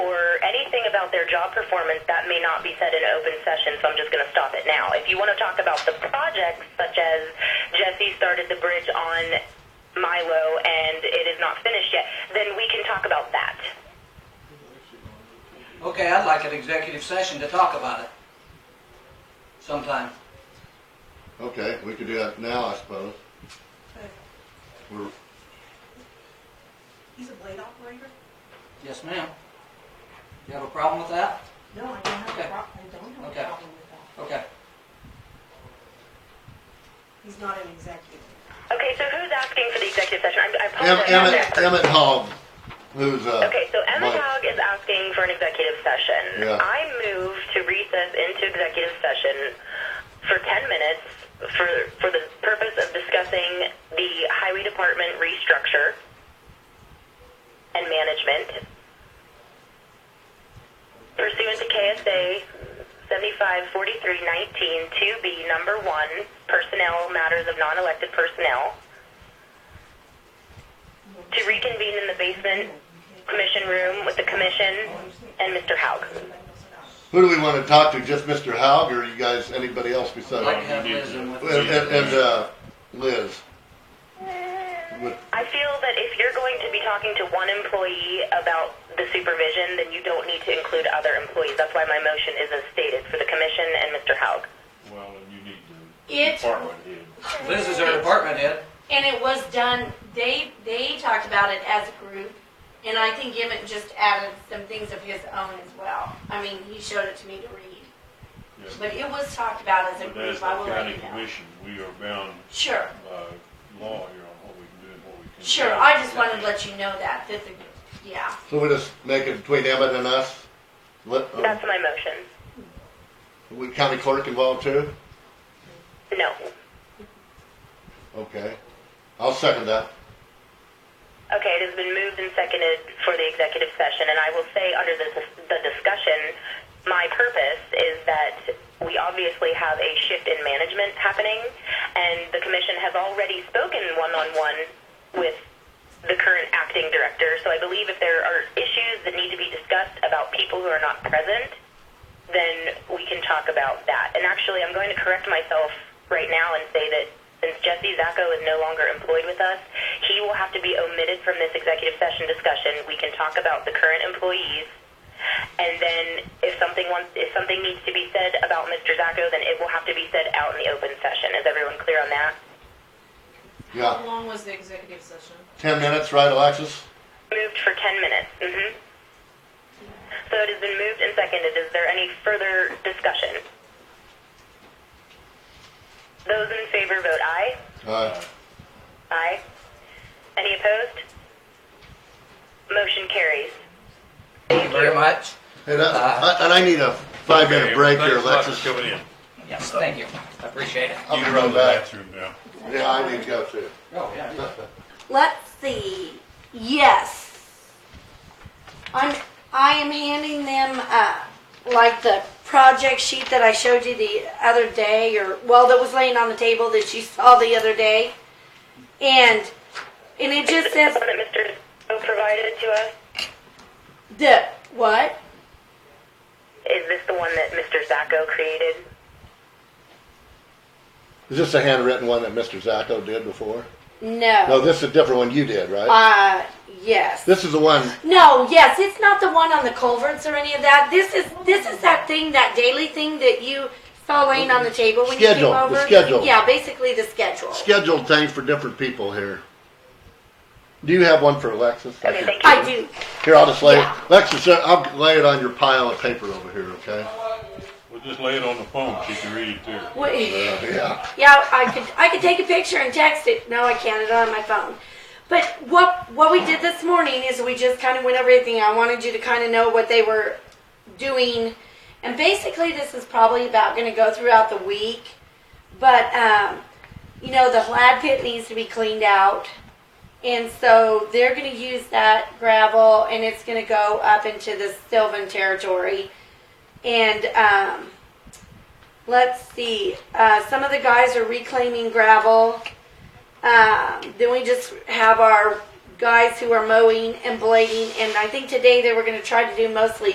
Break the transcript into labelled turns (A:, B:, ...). A: about their job performance, that may not be said in open session, so I'm just going to stop it now. If you want to talk about the projects, such as Jesse started the bridge on Milo and it is not finished yet, then we can talk about that.
B: Okay, I'd like an executive session to talk about it sometime.
C: Okay, we could do that now, I suppose. We're,
D: He's a blade operator?
B: Yes, ma'am. You have a problem with that?
D: No, I don't have
B: Okay.
D: a problem, I don't have
B: Okay.
D: a problem with that.
B: Okay.
D: He's not an executive.
A: Okay, so who's asking for the executive session? I, I
C: Em-
A: apologize.
C: Emmett, Emmett Hogg, who's, uh.
A: Okay, so Emma
C: Mike.
A: Hogg is asking for an executive session.
C: Yeah.
A: I move to recess into executive session for 10 minutes for, for the purpose of discussing the highway department restructure and management pursuant to KSA 754319 2B number 1, personnel matters of non-elected personnel to reconvene in the basement commission room with the commission and Mr. Haug.
C: Who do we want to talk to? Just Mr. Haug or you guys, anybody else
B: I'd
C: besides?
B: like to have
E: you need
B: Liz
E: to-
B: in with
C: And,
B: us.
C: and, and, uh, Liz. With-
A: I feel that if you're going to be talking to one employee about the supervision, then you don't need to include other employees. That's why my motion is as stated for the commission and Mr. Haug.
E: Well, and you need to
F: It-
E: department head.
C: uh,
B: Liz is our department head.
F: And it was done, they, they talked about it as a group, and I think Emmett just added some things of his own as well. I mean, he showed it to me to read,
E: Yeah.
F: but it was talked about as
E: But
F: a
E: as
F: group,
E: the
F: I will let
E: county
F: you know.
E: commission, we are bound
F: Sure,
E: by law here on what we can do and what we can't.
F: sure,
E: do.
F: I just wanted to let you know that, that the, yeah,
C: So we just make it between Emmett and us? Let, uh,
A: That's my motion.
C: we county clerk involved too?
A: No.
C: Okay. I'll second that.
A: Okay, it has been moved and seconded for the executive session, and I will say under the, the discussion, my purpose is that we obviously have a shift in management happening, and the commission has already spoken one-on-one with the current acting director, so I believe if there are issues that need to be discussed about people who are not present, then we can talk about that. And actually, I'm going to correct myself right now and say that since Jesse Zacco is no longer employed with us, he will have to be omitted from this executive session discussion. We can talk about the current employees. And then if something wants, if something needs to be said about Mr. Zacco, then it will have to be said out in the open session. Is everyone clear on that?
C: Yeah.
G: long was the executive session?
C: Ten minutes, right, Alexis?
A: Moved for 10 minutes. hmm So it has been moved and seconded. Is there any further discussion? Those in favor vote aye.
C: Uh,
A: Aye. Any opposed? Motion carries.
B: Thank you very much.
C: hey, that, I- and I need a five-minute break here,
E: Thanks a lot for
C: Alexis.
E: Coming in.
B: Yes, thank you. I appreciate it.
C: I'll
E: You
C: be
E: can run
C: right
E: the
C: back.
E: bathroom now.
C: Yeah, I need to go too.
B: Oh, yeah.
F: let's see, yes. I'm, I am handing them, uh, like the project sheet that I showed you the other day, or, well, that was laying on the table that you saw the other day. And, and it just
A: Is
F: says
A: the one that Mr. O provided to us,
F: the, what?
A: is this the one that Mr. Zacco created?
C: Is this a handwritten one that Mr. Zacco did before? No,
F: No.
C: this is a different one you did, right?
F: Uh, yes.
C: This is the one,
F: No, yes, it's not the one on the culverts or any of that. This is, this is that thing, that daily thing that you saw laying on the table when you came
C: Schedule, the
F: over.
C: schedule.
F: Yeah, basically the schedule.
C: scheduled things for different people here. Do you have one for Alexis? I
A: Okay,
C: can-
A: thank you.
F: I do.
C: Here, I'll just lay it.
F: Yeah.
C: Alexis, I'll lay it on your pile of paper over here, okay?
E: We'll just lay it on the phone, she can read it too.
F: Wait.
C: Yeah.
F: Yeah, I could I could take a picture and text it. No, I can't. It's on my phone. But what what we did this morning is we just kind of went over everything. I wanted you to kind of know what they were doing, and basically this is probably about going to go throughout the week. But um, you know, the lad pit needs to be cleaned out, and so they're going to use that gravel, and it's going to go up into the Sylvan territory, and. Um, Let's see. Uh, some of the guys are reclaiming gravel. Um, then we just have our guys who are mowing and blading. And I think today they were going to try to do mostly